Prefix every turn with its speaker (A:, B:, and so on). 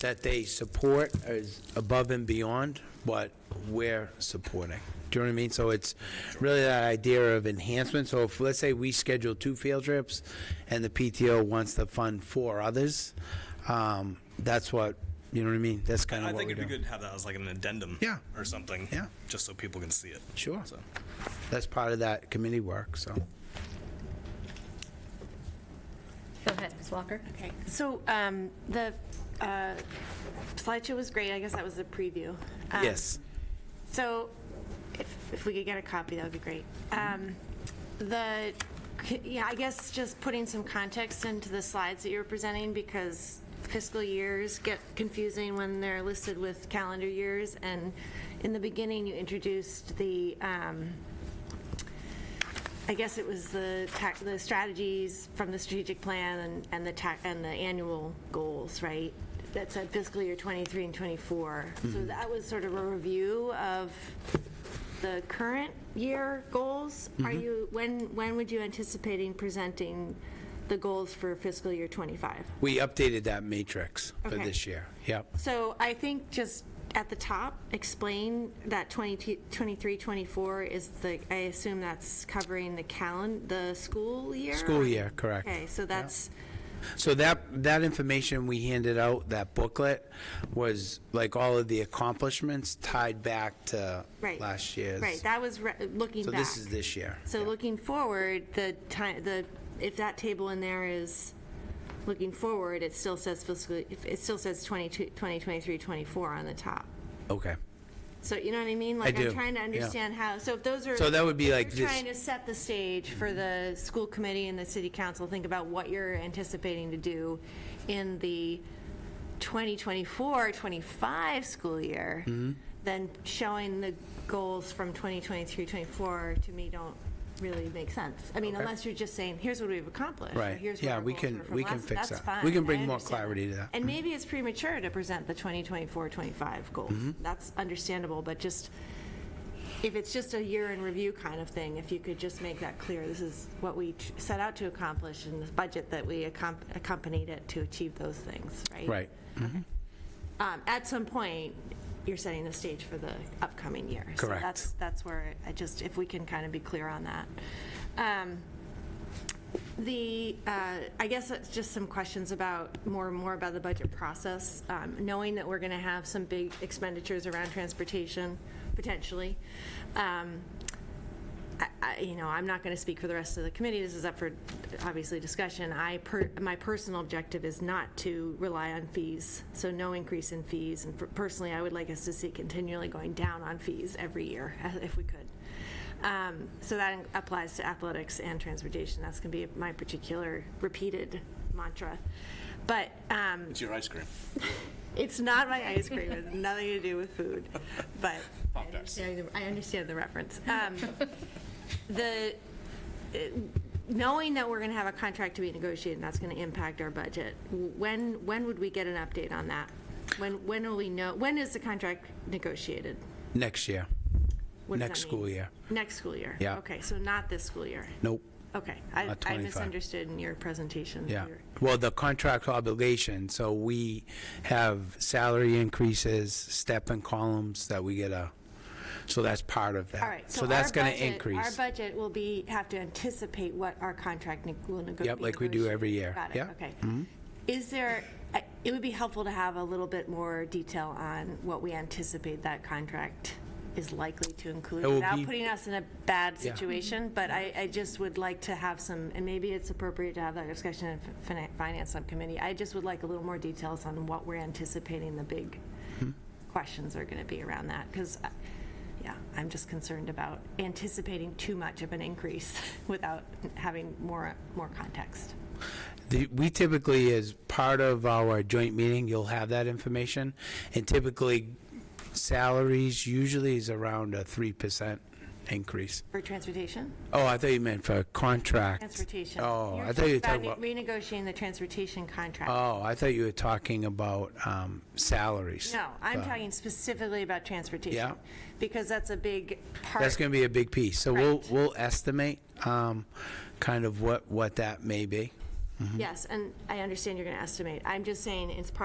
A: that they support is above and beyond what we're supporting. Do you know what I mean? So it's really that idea of enhancement. So if, let's say we schedule two field trips and the PTO wants to fund four others, um, that's what, you know what I mean? That's kind
B: I
A: of what
B: think
A: we
B: it'd be
A: do.
B: good to have that as like an addendum.
A: Yeah.
B: Or something.
A: Yeah.
B: Just so people can see it.
A: Sure.
B: So,
A: That's part of that committee work, so.
C: Go ahead, Ms. Walker.
D: Okay, so um, the uh, slideshow was great, I guess that was the preview. Um,
A: Yes.
D: So if if we could get a copy, that would be great. Um, The, yeah, I guess just putting some context into the slides that you were presenting, because fiscal years get confusing when they're listed with calendar years, and in the beginning, you introduced the, um, I guess it was the tac, the strategies from the strategic plan and, and the tac, and the annual goals, right? That said fiscal year '23 and '24. So that was sort of a review of the current year goals. Are you, when, when would you anticipating presenting the goals for fiscal year '25?
A: We updated that matrix for
D: Okay.
A: this year. Yep.
D: So I think just at the top, explain that 22 23, 24 is the, I assume that's covering the calend, the school year?
A: School year, correct.
D: Okay, so that's,
A: So that, that information we handed out, that booklet, was like all of the accomplishments tied back to
D: right.
A: last year's.
D: Right, that was re- looking
A: So
D: back.
A: this is this year.
D: So
A: Yeah.
D: looking forward, the time, the, if that table in there is looking forward, it still says fiscal, it still says 22, 2023, 24 on the top.
A: Okay.
D: So, you know what I mean? Like,
A: do,
D: I'm trying to
A: yeah.
D: understand how, so if those are.
A: So that would be
D: if
A: like
D: You're
A: this-
D: trying to set the stage for the school committee and the city council, think about what you're anticipating to do in the 2024, 25 school year.
A: Mm-hmm.
D: Then showing the goals from 2023, 24, to me, don't really make sense. I mean, unless you're just saying, here's what we've accomplished. or
A: Right.
D: here's what
A: Yeah,
D: our
A: we
D: goals
A: can-
D: were from
A: we can
D: last-
A: fix
D: that's
A: that.
D: fine.
A: We can
D: I
A: bring more
D: understand
A: clarity to that. Mm-hmm.
D: And maybe it's premature to present the 2024, 25 goals.
A: Mm-hmm.
D: That's understandable, but just, if it's just a year in review kind of thing, if you could just make that clear, this is what we ch- set out to accomplish and the budget that we accom- accompanied it to achieve those things, right?
A: Right.
D: Um, At some point, you're setting the stage for the upcoming year. So
A: Correct.
D: that's, that's where I just, if we can kind of be clear on that. Um, The, uh, I guess it's just some questions about, more and more about the budget process, um, knowing that we're going to have some big expenditures around transportation, potentially. Um, I- I- you know, I'm not going to speak for the rest of the committee, this is up for, obviously, discussion. I, per- my personal objective is not to rely on fees, so no increase in fees. And for- personally, I would like us to see continually going down on fees every year, uh, if we could. Um, So that applies to athletics and transportation, that's going to be my particular repeated mantra. But um,
B: it's your ice cream.
D: it's not my ice cream. It has nothing to do with food, but I understand, the- I understand the reference. Um, the uh, knowing that we're going to have a contract to be negotiated, and that's going to impact our budget. When when would we get an update on that? When when will we know? When is the contract negotiated?
A: Next year.
D: What does that
A: Next
D: mean?
A: school year.
D: Next school year.
A: Yeah.
D: Okay, so not this school year.
A: Nope.
D: Okay, I,
A: Not
D: I
A: 25.
D: misunderstood in your presentation.
A: Yeah.
D: Your-
A: Well, the contract obligation, so we have salary increases, step and columns that we get a, so that's part of that.
D: All right, so our
A: that's going to
D: budget-
A: increase.
D: Our budget will be, have to anticipate what our contract neg- will negotiate.
A: Yep, like we do every year.
D: Got it,
A: Yeah.
D: okay. Is there, I- it would be helpful to have a little bit more detail on what we anticipate that contract is likely to include,
A: It will
D: without
A: be-
D: putting us in a bad situation, but I, I just would like to have some, and maybe it's appropriate to have that discussion in fin- Finance Subcommittee, I just would like a little more details on what we're anticipating the big
A: Mm-hmm.
D: questions are going to be around that, because, yeah, I'm just concerned about anticipating too much of an increase without having more, more context.
A: The- We typically, as part of our joint meeting, you'll have that information. And typically, salaries usually is around a 3% increase.
D: For transportation?
A: Oh, I thought you meant for contracts.
D: Transportation.
A: Oh,
D: You're
A: I thought you were
D: about
A: talking about,
D: Renegotiating the transportation contract.
A: oh, I thought you were talking about um, salaries.
D: No, I'm talking specifically about transportation.
A: Uh. Yeah.
D: Because that's a big part.
A: That's going to be a big piece. So we'll,
D: Correct.
A: we'll estimate um, kind of what, what that may be.
D: Yes, and I understand you're going to estimate. I'm just saying, it's part